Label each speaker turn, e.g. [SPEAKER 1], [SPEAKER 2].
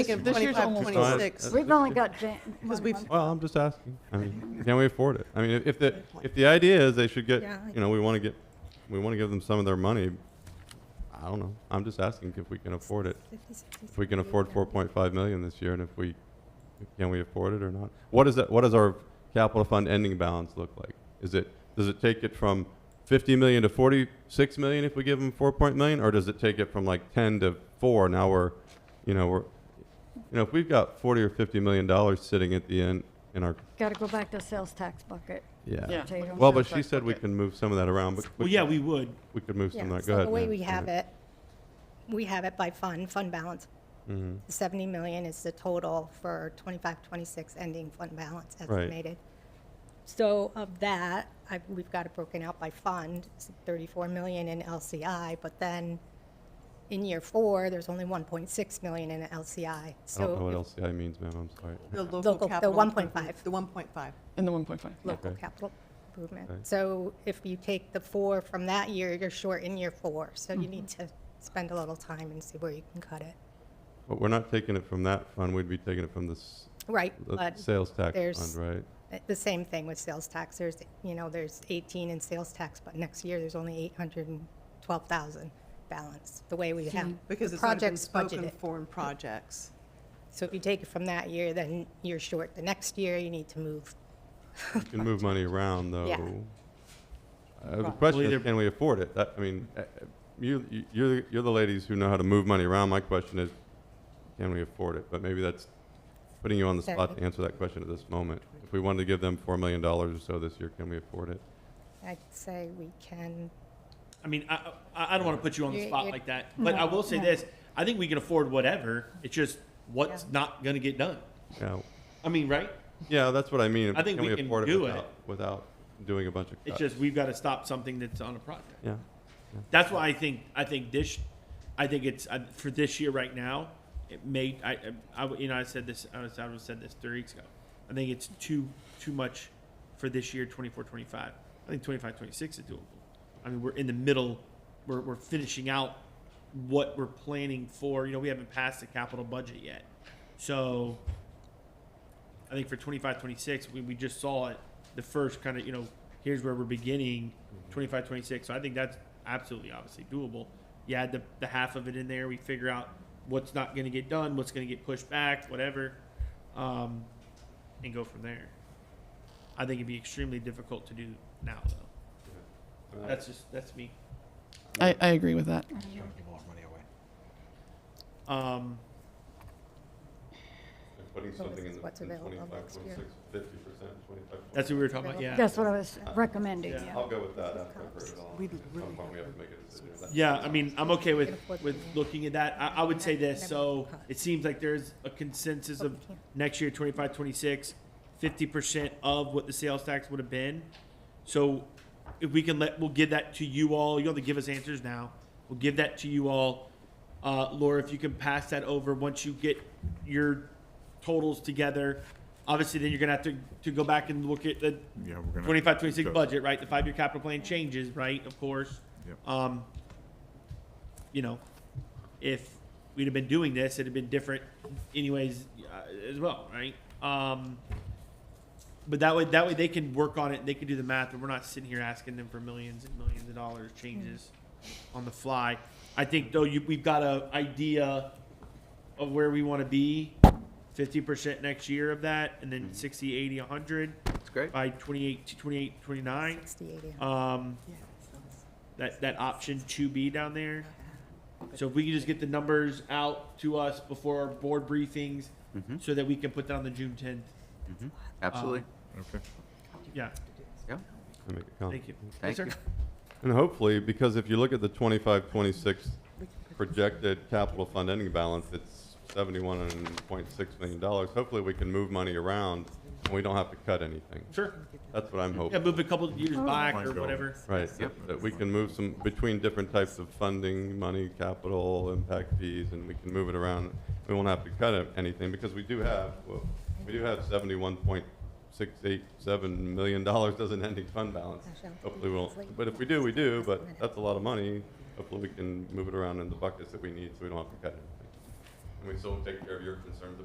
[SPEAKER 1] thinking
[SPEAKER 2] This year's
[SPEAKER 1] 25,
[SPEAKER 2] almost
[SPEAKER 1] 26.
[SPEAKER 2] over.
[SPEAKER 3] We've only got Jan-
[SPEAKER 1] Because
[SPEAKER 3] one
[SPEAKER 1] we've-
[SPEAKER 3] month.
[SPEAKER 4] Well, I'm just asking. I mean, can we afford it? I mean, if- if the, if the idea is they should get,
[SPEAKER 1] Yeah, I-
[SPEAKER 4] you know, we want to get, we want to give them some of their money, I don't know. I'm just asking if we can afford it. If we can afford 4.5 million this year and if we, can we afford it or not? What is that, what does our capital fund ending balance look like? Is it, does it take it from 50 million to 46 million if we give them 4 point million? Or does it take it from like 10 to 4? Now we're, you know, we're, you know, if we've got 40 or 50 million dollars sitting at the end in our
[SPEAKER 3] Gotta go back to sales tax bucket.
[SPEAKER 4] yeah.
[SPEAKER 2] Yeah.
[SPEAKER 3] Potato.
[SPEAKER 4] Well,
[SPEAKER 2] Sounds
[SPEAKER 4] but she
[SPEAKER 2] like-
[SPEAKER 4] said we
[SPEAKER 2] okay.
[SPEAKER 4] can move some of that around, but.
[SPEAKER 5] Well, yeah, we would.
[SPEAKER 4] We could move some
[SPEAKER 6] Yeah,
[SPEAKER 4] of that, go
[SPEAKER 6] so
[SPEAKER 4] ahead.
[SPEAKER 6] the way we have it,
[SPEAKER 4] Mm-hmm.
[SPEAKER 6] we have it by fund, fund balance.
[SPEAKER 4] hmm
[SPEAKER 6] The 70 million is the total for 25, 26 ending fund balance
[SPEAKER 4] Right.
[SPEAKER 6] estimated. So of that, I, we've got it broken out by fund, It's 34 million in LCI, but then in year four, there's only 1.6 million in LCI.
[SPEAKER 4] I don't know what
[SPEAKER 6] So
[SPEAKER 4] LCI means, ma'am, I'm sorry.
[SPEAKER 1] The
[SPEAKER 6] Local- the
[SPEAKER 1] capital
[SPEAKER 6] 1.5.
[SPEAKER 1] improvement- The 1.5.
[SPEAKER 2] In the 1.5.
[SPEAKER 6] if- local
[SPEAKER 4] Okay.
[SPEAKER 6] capital improvement.
[SPEAKER 4] Okay.
[SPEAKER 6] So if you take the four from that year, you're short in year four. So you need to spend a little time and see where you can cut it.
[SPEAKER 4] But we're not taking it from that fund, we'd be taking it from the, s-
[SPEAKER 6] Right,
[SPEAKER 4] the
[SPEAKER 6] but
[SPEAKER 4] sales tax
[SPEAKER 6] there's-
[SPEAKER 4] fund, right?
[SPEAKER 6] The same thing with sales tax. There's, you know, there's 18 in sales tax, but next year there's only 812,000 balance, the way we have.
[SPEAKER 1] Because
[SPEAKER 6] the
[SPEAKER 1] it's not been
[SPEAKER 6] projects
[SPEAKER 1] spoken
[SPEAKER 6] budgeted.
[SPEAKER 1] for in projects.
[SPEAKER 6] So if you take it from that year, then you're short. The next year, you need to move.
[SPEAKER 4] You can move money around, though.
[SPEAKER 6] Yeah.
[SPEAKER 4] Uh, The question
[SPEAKER 5] Well,
[SPEAKER 4] is,
[SPEAKER 5] either-
[SPEAKER 4] can we afford it? That- I mean, uh, uh, you, you- you're, the- you're the ladies who know how to move money around, my question is, can we afford it? But maybe that's putting you on the spot to
[SPEAKER 6] Sorry.
[SPEAKER 4] answer that question at this moment. If we wanted to give them $4 million or so this year, can we afford it?
[SPEAKER 6] I'd say we can,
[SPEAKER 5] I mean, I, I, I don't want to put you on the
[SPEAKER 6] You-
[SPEAKER 5] spot
[SPEAKER 6] you-
[SPEAKER 5] like that, but I will say
[SPEAKER 6] no.
[SPEAKER 5] this: I think we can afford whatever. It's just what's not going to get done.
[SPEAKER 4] Yeah,
[SPEAKER 5] I mean, right?
[SPEAKER 4] yeah, that's what I mean.
[SPEAKER 5] I think we can
[SPEAKER 4] afford
[SPEAKER 5] do
[SPEAKER 4] without- Without doing a bunch of
[SPEAKER 5] It's
[SPEAKER 4] cuts?
[SPEAKER 5] just we've got to stop something that's on a project.
[SPEAKER 4] Yeah,
[SPEAKER 5] That's why I think I think this, I think it's I, for this year right now. It may I, I I- you know I said this I was I was said this three weeks ago. I think it's too too much for this year 24 25. I think 25 26 is doable. I mean we're in the middle. We're we're finishing out what we're planning for. You know we haven't passed the capital budget yet, so I think for 25, 26, we, we just saw it, the first kind of, you know, here's where we're beginning 25, 26. So I think that's absolutely obviously doable. You add the, the half of it in there, we figure out what's not going to get done, what's going to get pushed back, whatever, um, and go from there. I think it'd be extremely difficult to do now, though. That's just, that's me.
[SPEAKER 2] I, I agree with that.
[SPEAKER 5] Um,
[SPEAKER 4] putting something in the
[SPEAKER 6] what's
[SPEAKER 4] in
[SPEAKER 6] available
[SPEAKER 4] 25,
[SPEAKER 6] next year.
[SPEAKER 4] 26, 50%, 25.
[SPEAKER 5] that's what we were talking about, yeah.
[SPEAKER 3] That's what I was recommending,
[SPEAKER 5] Yeah.
[SPEAKER 3] yeah.
[SPEAKER 4] I'll go with that after I've heard it all.
[SPEAKER 1] We
[SPEAKER 4] At some
[SPEAKER 1] really
[SPEAKER 4] point, we have to make a decision. That's-
[SPEAKER 5] Yeah, I mean, I'm okay with,
[SPEAKER 6] Get a fourth
[SPEAKER 5] with
[SPEAKER 6] one.
[SPEAKER 5] looking at that. I, I would say this,
[SPEAKER 6] Never
[SPEAKER 5] so
[SPEAKER 6] cut.
[SPEAKER 5] it seems like there's a consensus of
[SPEAKER 6] Okay.
[SPEAKER 5] next year, 25, 26, 50% of what the sales tax would have been. So if we can let, we'll give that to you all. You don't have to give us answers now. We'll give that to you all. Uh, Laura, if you can pass that over once you get your totals together. Obviously, then you're gonna have to, to go back and look at the
[SPEAKER 7] Yeah, we're gonna.
[SPEAKER 5] 25, 26
[SPEAKER 7] go-
[SPEAKER 5] budget, right? The five-year capital plan changes, right? Of course.
[SPEAKER 7] Yep.
[SPEAKER 5] Um, you know, if we'd have been doing this, it'd have been different anyways uh, as well, right? Um, but that way, that way they can work on it. They can do the math, and we're not sitting here asking them for millions and millions of dollars changes
[SPEAKER 8] Hmm.
[SPEAKER 5] on the fly. I think though you, we've got a idea of where we want to be. 50% next year of that, and then 60, 80, 100
[SPEAKER 8] Hmm. That's great.
[SPEAKER 5] by 28 to 28, 29.
[SPEAKER 6] 68 yeah.
[SPEAKER 5] Um,
[SPEAKER 1] Yeah.
[SPEAKER 5] that, that option two B down there. So if we can just get the numbers out to us before our board briefings, so that we can put that on the June tenth.
[SPEAKER 8] Mm-hmm.
[SPEAKER 5] Um,
[SPEAKER 8] Absolutely.
[SPEAKER 7] Okay.
[SPEAKER 5] Yeah,
[SPEAKER 8] Yeah.
[SPEAKER 4] I make a comment.
[SPEAKER 5] thank you.
[SPEAKER 8] Thank
[SPEAKER 5] yes,
[SPEAKER 8] you.
[SPEAKER 5] sir.
[SPEAKER 4] And hopefully, because if you look at the 25, 26 projected capital fund ending balance, it's 71.6 million dollars. Hopefully, we can move money around and we don't have to cut anything.
[SPEAKER 5] Sure.
[SPEAKER 4] That's what I'm
[SPEAKER 5] Yeah,
[SPEAKER 4] hoping,
[SPEAKER 5] move a couple years back or
[SPEAKER 7] Fine, go.
[SPEAKER 5] whatever.
[SPEAKER 4] right?
[SPEAKER 8] Yep.
[SPEAKER 4] that- That we can move some, between different types of funding, money, capital, impact fees, and we can move it around. We won't have to cut it- anything because we do have, well, we do have 71.687 million dollars as an ending fund balance. Hopefully we won't, but if we do, we do, but that's a lot of money. Hopefully we can move it around in the buckets that we need so we don't have to cut anything. and we still take care of your concerns